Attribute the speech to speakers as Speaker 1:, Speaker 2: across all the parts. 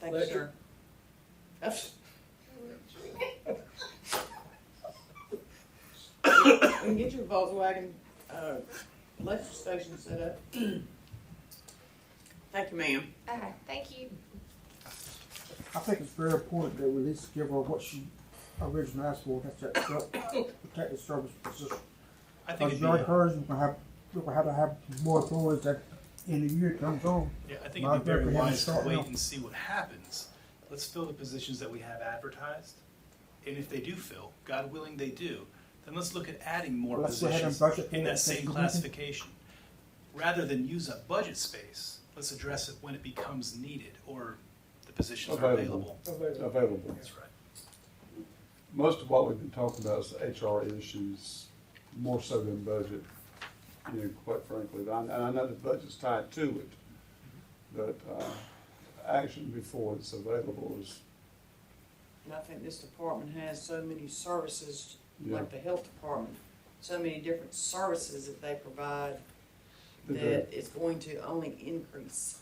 Speaker 1: Thanks, sir. That's- And get your Volkswagen, uh, electric station set up. Thank you, ma'am.
Speaker 2: All right, thank you.
Speaker 3: I think it's very important that we at least give her what she originally asked for, that's that self- protective service position.
Speaker 4: I think
Speaker 3: Because
Speaker 4: it'd be,
Speaker 3: like hers, we're gonna have, we're gonna have to have more authorities that in the year comes on.
Speaker 4: yeah, I think
Speaker 3: my
Speaker 4: it'd be very
Speaker 3: opinion is
Speaker 4: wise to
Speaker 3: start
Speaker 4: wait
Speaker 3: now.
Speaker 4: and see what happens. Let's fill the positions that we have advertised. And if they do fill, God willing they do, then let's look at adding more
Speaker 3: Let's go ahead and
Speaker 4: positions
Speaker 3: budget
Speaker 4: in
Speaker 3: for
Speaker 4: that
Speaker 3: it.
Speaker 4: same classification. Rather than use up budget space, let's address it when it becomes needed or the positions are available.
Speaker 5: Available. available.
Speaker 4: That's right.
Speaker 5: Most of what we've been talking about is HR issues, more so than budget, you know, quite frankly. And I, and I know the budget's tied to it, but, uh, action before it's available is,
Speaker 1: And I think this department has so many services,
Speaker 5: yeah.
Speaker 1: like the health department, so many different services that they provide
Speaker 5: the-
Speaker 1: that it's going to only increase.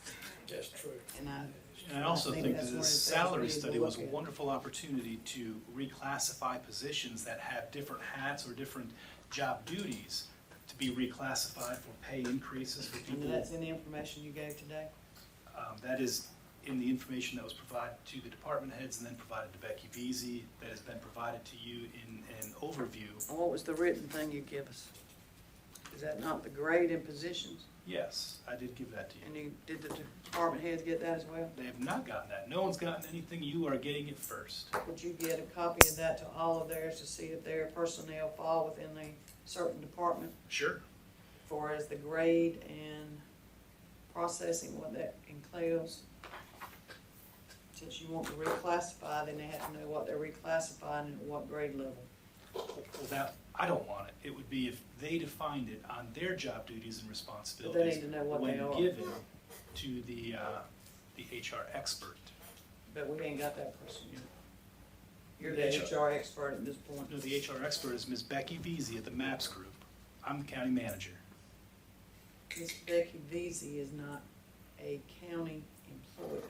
Speaker 6: That's true.
Speaker 1: And I,
Speaker 4: And I also
Speaker 1: I think
Speaker 4: think
Speaker 1: that's
Speaker 4: that
Speaker 1: one of the
Speaker 4: this
Speaker 1: things we
Speaker 4: salary
Speaker 1: need to
Speaker 4: study was a
Speaker 1: look at.
Speaker 4: wonderful opportunity to reclassify positions that have different hats or different job duties to be reclassified for pay increases for
Speaker 1: and
Speaker 4: people.
Speaker 1: that's in the information you gave today.
Speaker 4: Um, That is in the information that was provided to the department heads and then provided to Becky Beasy, that has been provided to you in an overview.
Speaker 1: And what was the written thing you give us? Is that not the grade and positions?
Speaker 4: Yes, I did give that to you.
Speaker 1: And you, did the department heads get that as well?
Speaker 4: They have not gotten that. No one's gotten anything. You are getting it first.
Speaker 1: Would you get a copy of that to all of theirs to see if their personnel fall within a certain department?
Speaker 4: Sure.
Speaker 1: far as the grade and processing, what that includes. Since you want to reclassify, then they have to know what they're reclassifying and at what grade level.
Speaker 4: Well, that, I don't want it. It would be if they defined it on their job duties and
Speaker 1: But they need
Speaker 4: responsibilities
Speaker 1: to know what they
Speaker 4: when
Speaker 1: are,
Speaker 4: given to the, uh, the HR expert.
Speaker 1: but we ain't got that person yet. You're the
Speaker 4: The HR.
Speaker 1: HR expert at this point.
Speaker 4: No, the HR expert is Ms. Becky Veazey at the MAPS Group. I'm the county manager.
Speaker 1: Ms. Becky Veazey is not a county employee,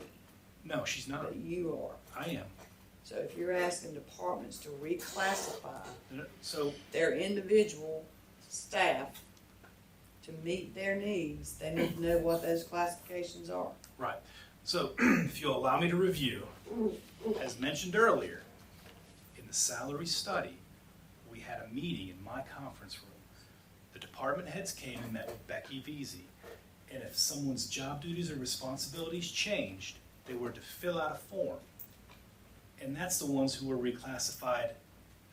Speaker 4: No, she's not.
Speaker 1: but you are.
Speaker 4: I am.
Speaker 1: So if you're asking departments to reclassify
Speaker 4: So,
Speaker 1: their individual staff to meet their needs, they need to know what those classifications are.
Speaker 4: right. So if you'll allow me to review, as mentioned earlier, in the salary study, we had a meeting in my conference room. The department heads came and met with Becky Veazey. And if someone's job duties or responsibilities changed, they were to fill out a form. And that's the ones who were reclassified,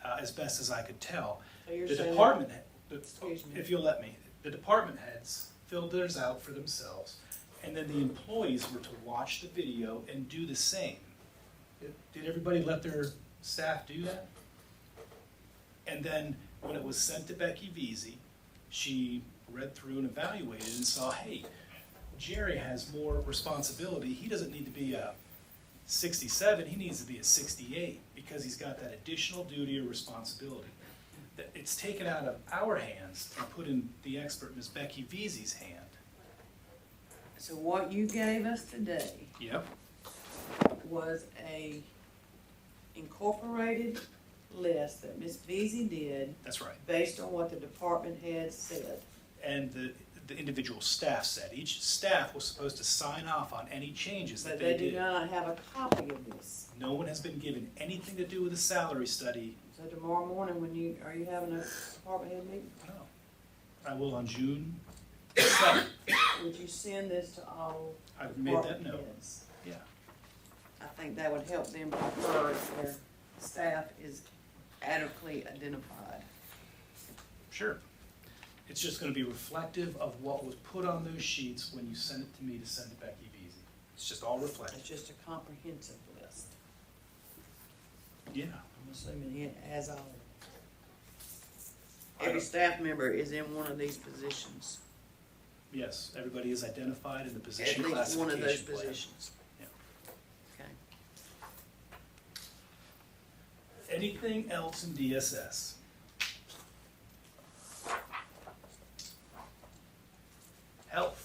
Speaker 4: uh, as best as I could tell.
Speaker 1: So you're
Speaker 4: The
Speaker 1: saying-
Speaker 4: department, he-
Speaker 1: Excuse me.
Speaker 4: the- if you'll let me, the department heads filled theirs out for themselves, and then the employees were to watch the video and do the same. Did- Did everybody let their staff do that? And then, when it was sent to Becky Veazey, she read through and evaluated and saw, hey, Jerry has more responsibility, he doesn't need to be a sixty-seven, he needs to be a sixty-eight, because he's got that additional duty or responsibility that it's taken out of our hands and put in the expert Ms. Becky Veazey's hand.
Speaker 1: So what you gave us today
Speaker 4: Yep.
Speaker 1: was a incorporated list that Ms. Beasy did
Speaker 4: That's right.
Speaker 1: based on what the department head said.
Speaker 4: And the, the individual staff said, each staff was supposed to sign off on any changes
Speaker 1: But
Speaker 4: that
Speaker 1: they
Speaker 4: they
Speaker 1: do
Speaker 4: did.
Speaker 1: not have a copy of this.
Speaker 4: No one has been given anything to do with the salary study,
Speaker 1: So tomorrow morning, when you, are you having a department head meeting?
Speaker 4: no. I will on June seventh,
Speaker 1: Would you send this to all
Speaker 4: I've made that
Speaker 1: department
Speaker 4: note,
Speaker 1: heads?
Speaker 4: yeah.
Speaker 1: I think that would help them prefer if their staff is adequately identified.
Speaker 4: Sure. It's just gonna be reflective of what was put on those sheets when you send it to me to send to Becky Veazey. It's just all reflective.
Speaker 1: It's just a comprehensive list.
Speaker 4: Yeah,
Speaker 1: I'm assuming it has all. Every staff member is in one of these positions,
Speaker 4: yes, everybody is identified in the
Speaker 1: at
Speaker 4: position
Speaker 1: least one of those
Speaker 4: classification plan.
Speaker 1: positions.
Speaker 4: Yeah.
Speaker 1: Okay.
Speaker 4: Anything else in DSS? Health.